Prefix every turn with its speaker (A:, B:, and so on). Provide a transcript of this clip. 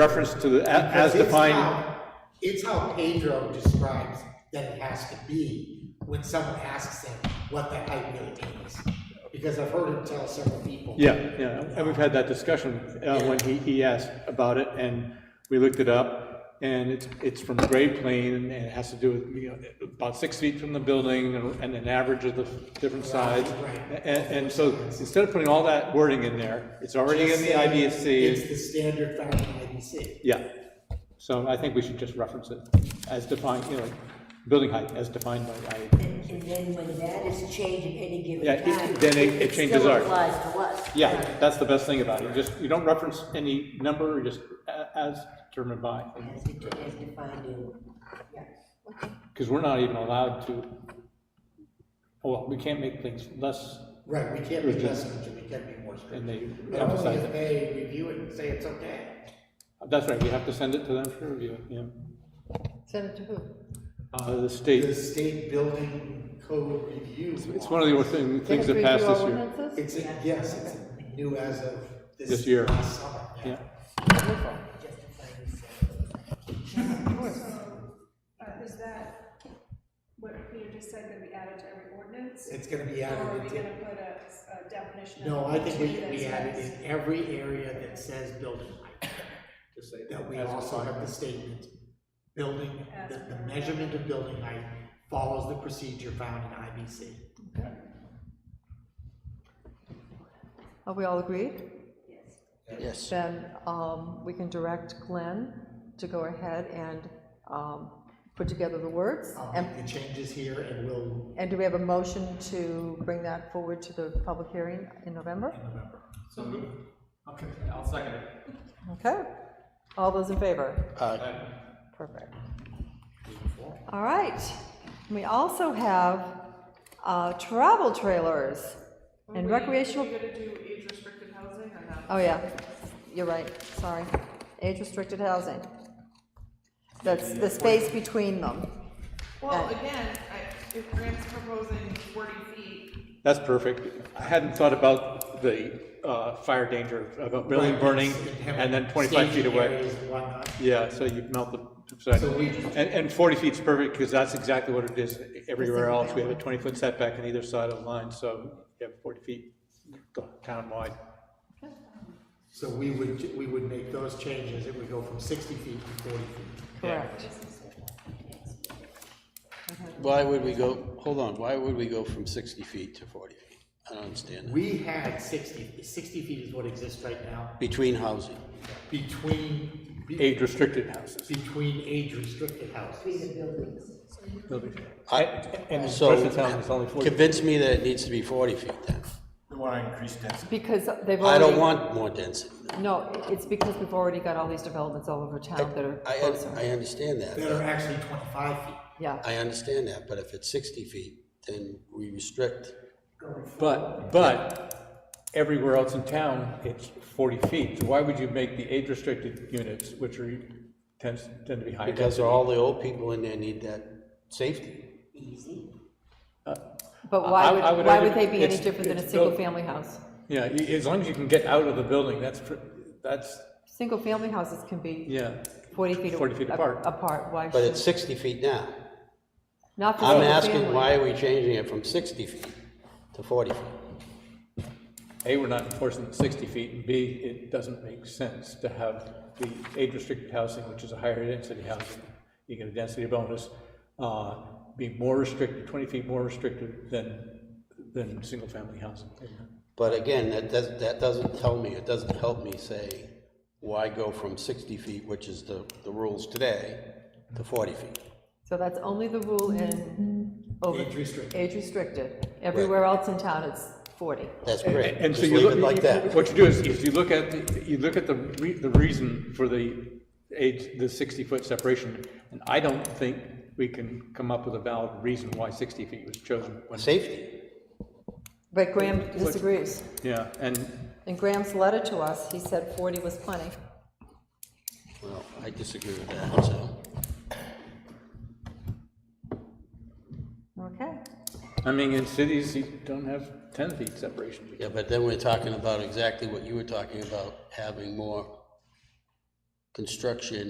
A: reference to the, a- as
B: It's
A: defined,
B: how- It's how Pedro describes that it has to be when someone asks him what that height really means. Because I've heard him tell several people.
A: yeah, yeah, and we've had that discussion, uh, when he, he asked about it, and we looked it up, and it's, it's from grade plane, and it has to do with, you know, about six feet from the building, and and an average of the different sides.
B: Right.
A: And, and so, instead of putting all that wording in there, it's already in the
B: Just saying
A: IBC.
B: It's the standard found in IBC.
A: Yeah, so I think we should just reference it as defined, you know, building height as defined by I.
C: And, and then when that is changed at any given
A: Yeah, it-
C: time.
A: then it- it changes
C: still
A: ours.
C: applies to us.
A: Yeah, that's the best thing about it, you just, you don't reference any number, you just a- as determined by,
C: As it, as defined in, yeah, okay.
A: because we're not even allowed to, well, we can't make things less,
B: Right, we can't be less than, we can be more strict.
A: and they
B: But only
A: emphasize
B: if
A: it.
B: they review it and say it's okay.
A: That's right, we have to send it to them for review, yeah.
D: Send it to who?
A: Uh, the
B: The
A: state,
B: state building code review.
A: it's one of the thing- things that passed this year.
B: It's, a- yes, it's new as of this.
A: This year.
B: last summer,
A: Yeah,
C: Justifying itself.
E: Uh, is that what Peter just said, gonna be added to every ordinance?
B: It's gonna be
E: Or are
B: added
E: we
B: into.
E: gonna put a, a definition?
B: No, I think we
E: of
B: should be
E: that
B: added
E: says-
B: in every area that says building height,
A: Just say
B: that we
A: as
B: also
A: defined.
B: have the statement, building,
E: As
B: that the
E: per-
B: measurement of building height follows the procedure found in IBC.
D: Are we all agreed?
F: Yes.
D: Then um, we can direct Glenn to go ahead and um, put together the words.
B: I'll
D: And
B: make the changes here and we'll,
D: and do we have a motion to bring that forward to the public hearing in November?
G: So move. Okay, I'll second it.
D: Okay. All those in favor?
F: Aye.
D: Perfect. All right. We also have uh, travel trailers and recreational.
H: Are you gonna do age-restricted housing or not?
D: Oh, yeah, you're right, sorry. Age-restricted housing. That's the space between them. Uh,
H: Well, again, I, if Graham's proposing forty feet,
A: That's perfect. I hadn't thought about the uh, fire danger of a building
B: Right,
A: burning
B: it's- it have
A: and then 25 feet
B: staging
A: away.
B: areas and whatnot.
A: Yeah, so you melt the,
B: So
A: sorry.
B: we-
A: And, and 40 feet's perfect because that's exactly what it is everywhere else. We have a 20-foot setback on either side of the line, so you have 40 feet townwide.
B: So we would, we would make those changes, it would go from sixty feet to forty feet.
D: Correct.
F: Why would we go, hold on, why would we go from 60 feet to 40 feet? I don't understand that.
B: We had 60. 60 feet is what exists right now,
F: Between housing.
B: between, be-
A: Age-restricted houses.
B: between age-restricted houses.
F: I,
A: And in
F: so,
A: Preston Town, it's only 40.
F: convince me that it needs to be 40 feet then.
G: We want to increase density.
D: Because they've already.
F: I don't want more density.
D: No, it's because we've already got all these developments all over town that are
F: I,
D: closer.
F: I understand that.
B: That are actually twenty-five feet.
D: Yeah,
F: I understand that, but if it's 60 feet, then we restrict.
A: But, but everywhere else in town, it's 40 feet. So why would you make the age-restricted units, which are, tends, tend to be high
F: Because
A: density?
F: all the old people in there need that safety.
D: but why
A: I- I
D: would,
A: would
D: why would
A: argue
D: they be any
A: it's-
D: different than a
A: it's built-
D: single-family house?
A: Yeah, y- as long as you can get out of the building, that's, pr- that's,
D: Single-family houses can be
A: yeah.
D: forty feet.
A: 40 feet
D: a-
A: apart.
D: Apart, why
F: But
D: should,
F: it's 60 feet now.
D: not for
F: I'm
D: single-family.
F: asking, why are we changing it from 60 feet to 40 feet?
A: A, we're not enforcing the 60 feet, and B, it doesn't make sense to have the age-restricted housing, which is a higher density housing, you get a density bonus, uh, be more restricted, 20 feet more restricted than, than single-family housing.
F: But again, that does that doesn't tell me, it doesn't help me say, why go from sixty feet, which is the, the rules today, to forty feet?
D: So that's only the rule in. over-
B: Age restricted.
D: Age restricted. Everywhere else in town, it's forty.
F: That's great,
A: And
F: just
A: so you
F: leave
A: look,
F: it like that.
A: what you do is, is you look at, the- you look at the, re- the reason for the age, the 60-foot separation, and I don't think we can come up with a valid reason why 60 feet was chosen. when-
F: Safety,
D: But Graham disagrees.
A: Yeah, and
D: In Graham's letter to us, he said 40 was plenty.
F: well, I disagree with that, so,
D: Okay.
A: I mean, in cities, you don't have ten feet separation.
F: yeah, but then we're talking about exactly what you were talking about, having more construction